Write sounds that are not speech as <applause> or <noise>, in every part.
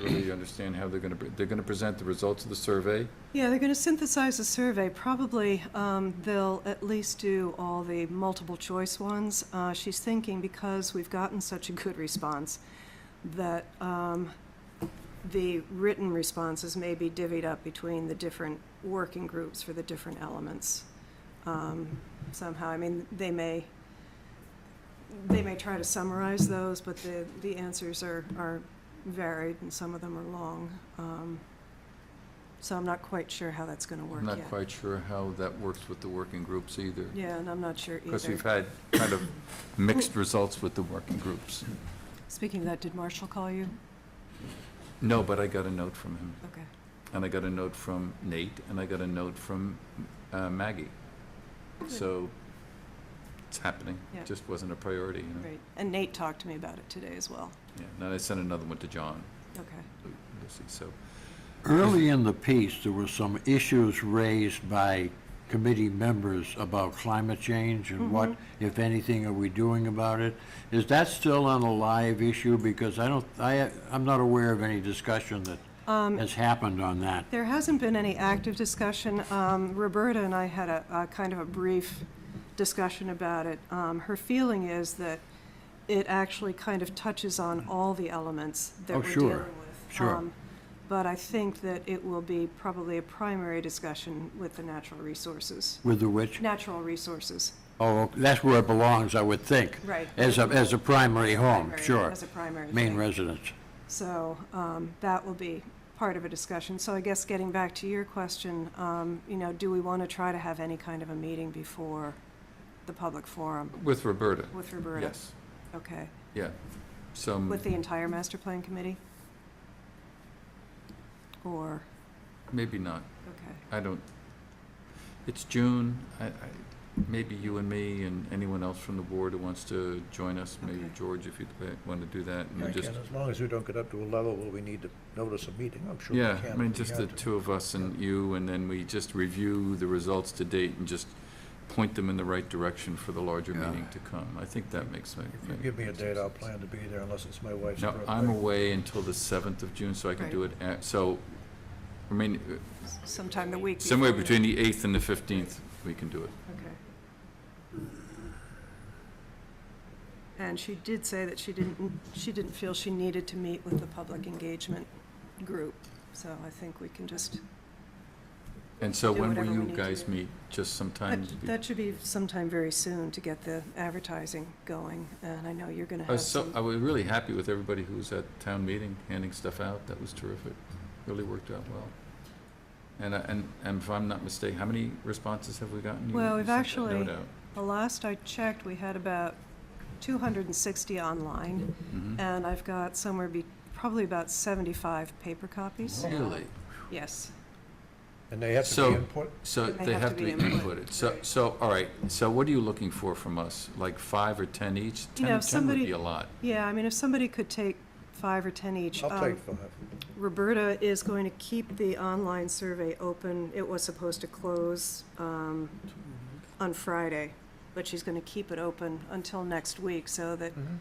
you understand how they're going to, they're going to present the results of the survey. Yeah, they're going to synthesize a survey. Probably um, they'll at least do all the multiple choice ones. Uh, She's thinking because we've gotten such a good response that um, the written responses may be divvied up between the different working groups for the different elements um, somehow. I mean, they may, they may try to summarize those, but the, the answers are, are varied and some of them are long. Um, so I'm not quite sure how that's gonna work I'm yet. not quite sure how that works with the working groups either. Yeah, and I'm not sure Because we've either. had kind <coughs> of mixed results with the working groups. Speaking of that, did Marshall call you? No, but I got a note from him, Okay. and I got a note from Nate, and I got a note from uh, Maggie. So it's happening. Yeah. It just wasn't a priority, you know? Great. And Nate talked to me about it today as well. Yeah, and then I sent another one to John, Okay. Lu- Lucy, so, Early in the piece, there were some issues raised by committee members about climate change and what, if anything, are we doing about it? Is that still on a live issue? Because I don't, I, I'm not aware of any discussion that has happened on that. There hasn't been any active discussion. Um, Roberta and I had a, a kind of a brief discussion about it. Um, her feeling is that it actually kind of touches on all the elements that Oh, we're dealing sure. with. Sure. Um, But I think that it will be probably a primary discussion with the natural resources, With the which, natural resources. oh, that's where it belongs, I would think. Right. As a, as a primary home, primary- sure. As a primary Main thing. residence. So um, that will be part of a discussion. So I guess getting back to your question, um, you know, do we want to try to have any kind of a meeting before the public forum with Roberta, with Roberta? yes, Okay. yeah. Some, With the entire master plan committee? Or, maybe not, okay, I don't, it's June, I, I, maybe you and me and anyone else from the board who wants to join us, maybe Okay. George, if you'd want to do that, and Yeah, we I just can, as long as we don't get up to a level where we need to notice a meeting, I'm sure we can. Yeah, I mean, if we just the have to. two of us and you, and then we just review the results to date and just point them in the right direction for the larger Yeah. meeting to come. I think that makes sense. If you give me a date, I'll plan to be there unless it's my wife's Now, birthday. I'm away until the seventh of June, so I can do it at, so, I mean, uh, sometime the week. somewhere before. between the eighth and the fifteenth, we can do it. Okay. And she did say that she didn't, she didn't feel she needed to meet with the public engagement group, so I think we can just, And so Do when will whatever we you need to guys do. meet? Just sometime? that be- that should be sometime very soon to get the advertising going, and I know you're gonna I have was Oh, so, uh, I some. was really happy with everybody who was at town meeting, handing stuff out, that was terrific, really worked out well. And, I- and, and if I'm not mistaken, how many responses have we gotten? You Well, sent we've that actually- note out. The last I checked, we had about two hundred and sixty online, Mhm. and I've got somewhere be, probably about seventy-five paper copies. Really? Yes. And they have to So- be input, So They they have to be input. inputted, so, so, all right, so what are you looking for from us? Like five or ten each? You Ten, know, ten would somebody- be a lot. Yeah, I mean, if somebody could take five or ten each. I'll um, take five. Roberta is going to keep the online survey open. It was supposed to close um, on Friday, but she's going to keep it open until next week so that Mhm.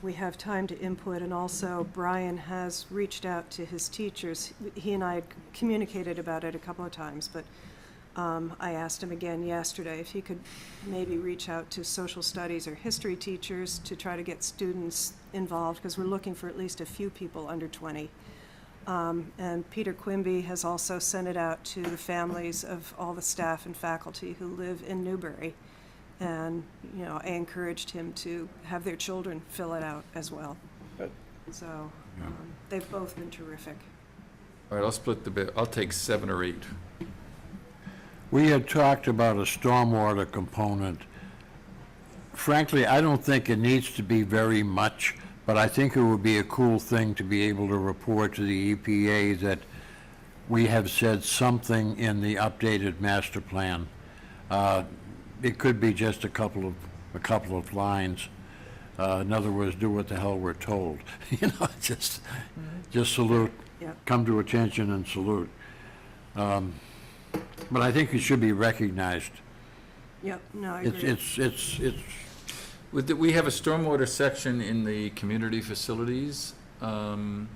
we have time to input. And also, Brian has reached out to his teachers. He and I had communicated about it a couple of times, but um, I asked him again yesterday if he could maybe reach out to social studies or history teachers to try to get students involved, because we're looking for at least a few people under 20. Um, And Peter Quimby has also sent it out to the families of all the staff and faculty who live in Newbury. And, you know, I encouraged him to have their children fill it out as well. Good. So um, they've both been terrific. All right, I'll split the bit, I'll take seven or eight. We had talked about a stormwater component. Frankly, I don't think it needs to be very much, but I think it would be a cool thing to be able to report to the EPA that we have said something in the updated master plan. Uh, It could be just a couple of, a couple of lines. Uh, In other words, do what the hell we're told, <laughs> you know, just, just salute, Yep. come to attention and salute. Um, But I think it should be recognized. Yep, no, I It's, agree. it's, it's, it's, With the- We have a stormwater section in the community facilities um,